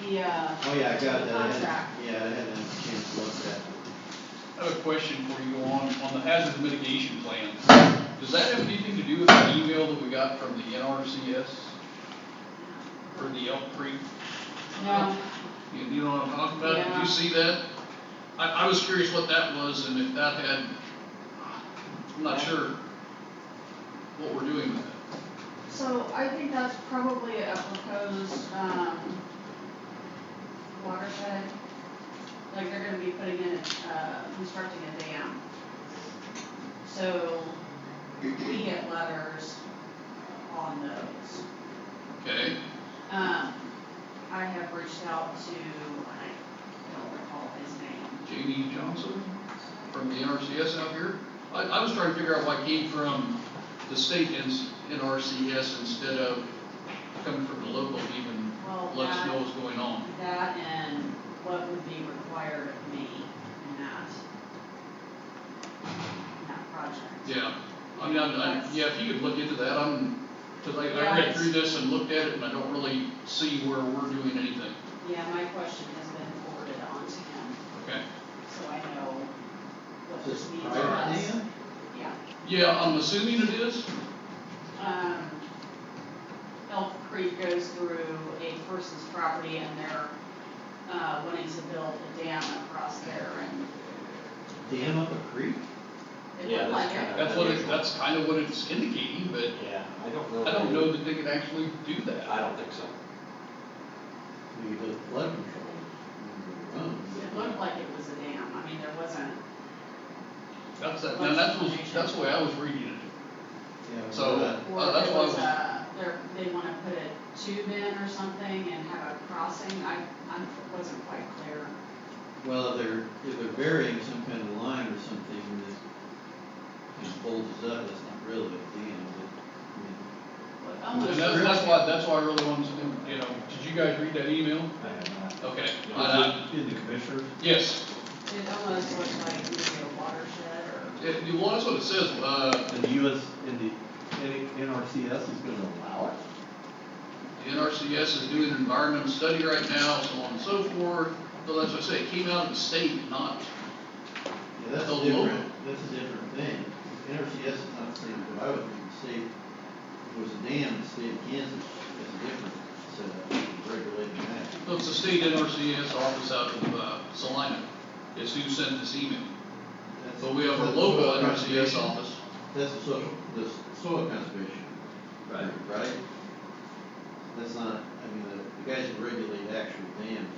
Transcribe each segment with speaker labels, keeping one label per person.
Speaker 1: the.
Speaker 2: Oh, yeah, I got that. I hadn't-
Speaker 1: Contract.
Speaker 2: Yeah, I hadn't had a chance to look at that.
Speaker 3: I have a question for you on, on the hazard mitigation plan. Does that have anything to do with the email that we got from the NRCS? For the Elk Creek?
Speaker 1: No,
Speaker 3: You, you know what I'm talking about? Did
Speaker 1: Yeah.
Speaker 3: you see that? I, I was curious what that was and if that had, I'm not sure what we're doing with it.
Speaker 1: so I think that's probably a proposed, um, watershed. Like they're gonna be putting in, uh, constructing a dam. So we get letters on those.
Speaker 3: Okay,
Speaker 1: Um, I have reached out to, I don't recall his name.
Speaker 3: Jamie Johnson from the NRCS out here. I, I was trying to figure out why it came from the state and s- NRCS instead of coming from the local to even
Speaker 1: Well,
Speaker 3: let us know
Speaker 1: that-
Speaker 3: what's going on.
Speaker 1: That and what would be required of me in that, in that project.
Speaker 3: Yeah, I mean, I'm, I, yeah, if you could look into that, I'm, cause I, I read through this and looked at it and I don't really see where we're doing anything.
Speaker 1: Yeah, my question has been forwarded on to him,
Speaker 3: Okay.
Speaker 1: so I know what
Speaker 2: This
Speaker 1: this means for
Speaker 2: private
Speaker 1: us.
Speaker 2: land?
Speaker 1: Yeah,
Speaker 3: Yeah, I'm assuming it is.
Speaker 1: um, Elk Creek goes through a person's property and they're, uh, wanting to build a dam across there and
Speaker 2: Dam up a creek?
Speaker 1: it
Speaker 4: Yeah,
Speaker 1: looked like
Speaker 4: that's
Speaker 1: it.
Speaker 4: kinda-
Speaker 3: That's what it, that's kind of what it's indicating, but
Speaker 4: Yeah, I don't know.
Speaker 3: I don't know that they could actually do that.
Speaker 4: I don't think so.
Speaker 2: Maybe the flood control. Runs.
Speaker 1: It looked like it was a dam, I mean, there wasn't,
Speaker 3: That's, that- now that's, what- that's the way I was reading it.
Speaker 2: Yeah,
Speaker 3: So-
Speaker 2: but-
Speaker 1: or
Speaker 3: Oh, that's
Speaker 1: there
Speaker 3: why I
Speaker 1: was
Speaker 3: was-
Speaker 1: a, there, they wanna put a tube in or something and have a crossing, I, I wasn't quite clear.
Speaker 2: Well, they're, if they're burying some kind of line or something that just bulges up, that's not really a dam, but,
Speaker 1: What-
Speaker 3: And
Speaker 1: almost-
Speaker 3: that's, that's why, that's why I really wanted to, know, you know, did you guys read that email?
Speaker 5: I have not.
Speaker 3: Okay. I- I-
Speaker 5: Was it in the commissioners?
Speaker 3: Yes,
Speaker 1: It almost looked like maybe a watershed or,
Speaker 3: it, you- well, that's what it says, uh,
Speaker 5: And the US, and the N- NRCS is gonna allow it?
Speaker 3: the NRCS is doing an environmental study right now, so on and so forth. So that's what I say, it came out of the state, not,
Speaker 2: yeah, that's
Speaker 3: The
Speaker 2: a
Speaker 3: local-
Speaker 2: different, that's a different thing. NRCS is not the same, but I would think the state, if it was a dam, the state of Kansas, that's a different setup, regulating that.
Speaker 3: so it's the state NRCS office out of, uh, Salina is who sent this email.
Speaker 2: That's-
Speaker 3: But we have a
Speaker 2: that's
Speaker 3: local
Speaker 2: soil
Speaker 3: NRCS
Speaker 2: conservation.
Speaker 3: office.
Speaker 2: That's the soil, the s- soil conservation. group, Right? That's not, I mean, the, the guys who regulate actual dams.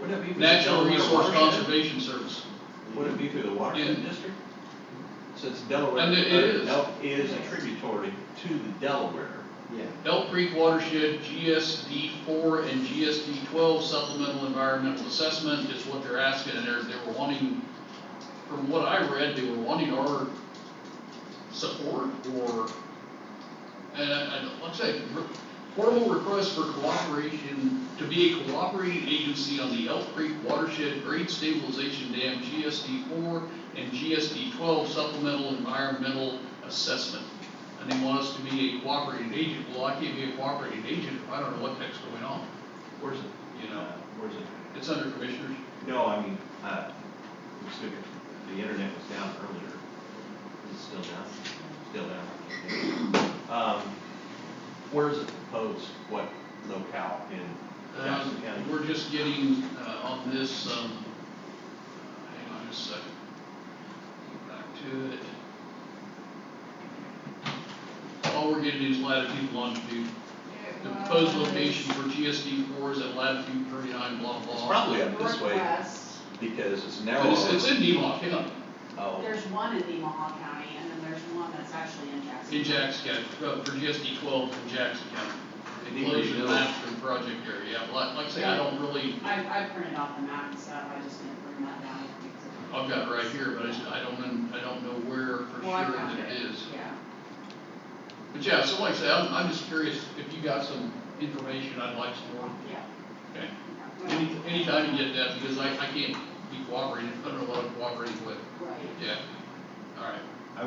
Speaker 4: Would it be-
Speaker 3: Natural
Speaker 4: Delaware
Speaker 3: Resource
Speaker 4: watershed?
Speaker 3: Conservation Service.
Speaker 4: Would it be through the watershed
Speaker 3: Yeah.
Speaker 4: district? Since Delaware.
Speaker 3: And it- it
Speaker 4: uh,
Speaker 3: is.
Speaker 4: Del- Is a tributary to the Delaware.
Speaker 2: Yeah.
Speaker 3: Elk Creek Watershed GSD four and GSD twelve supplemental environmental assessment is what they're asking, and they're, they were wanting, from what I read, they were wanting our support or, and I, I, don't- like I say, re- formal request for cooperation, to be a cooperating agency on the Elk Creek Watershed Grade Stabilization Dam GSD four and GSD twelve supplemental environmental assessment. And they want us to be a cooperating agent. Well, I can't be a cooperating agent if I don't know what the heck's going on,
Speaker 4: Where's it?
Speaker 3: you know?
Speaker 4: Uh, Where's it?
Speaker 3: It's under commissioners.
Speaker 4: No, I mean, uh, I'm assuming the internet was down earlier. Is it still down? Still down. Um, where's it proposed? What locale in Jackson
Speaker 3: Um,
Speaker 4: County?
Speaker 3: we're just getting, uh, on this, um, hang on just a second. Go Back to it. All we're getting is latitude, longitude. The proposed location for GSD four is at latitude thirty-nine, blah, blah.
Speaker 4: It's probably up this way
Speaker 1: Northwest,
Speaker 4: because it's
Speaker 3: But
Speaker 4: narrow.
Speaker 3: It's, it's in Nemaw County,
Speaker 4: Oh,
Speaker 1: there's one in Nemaha County and then there's one that's actually in Jackson.
Speaker 3: in Jackson County, uh, for GSD twelve in Jackson County.
Speaker 4: Neat
Speaker 3: Inclusion
Speaker 4: deal.
Speaker 3: master and project area, Yeah, like, like I say, I don't really,
Speaker 1: I, I printed off the map and stuff, I just didn't bring that down.
Speaker 3: I've got it right here, but I just, I don't, un- I don't know where for
Speaker 1: Well, I
Speaker 3: sure
Speaker 1: found
Speaker 3: that it is.
Speaker 1: Yeah,
Speaker 3: But yeah, so like I say, I'm, I'm just curious if you got some information I'd like some more,
Speaker 1: yeah.
Speaker 3: okay?
Speaker 1: Well,
Speaker 3: Any, anytime you get that, because I, I can't be cooperating, I don't know what I'm cooperating with,
Speaker 1: Right.
Speaker 3: yeah, all right.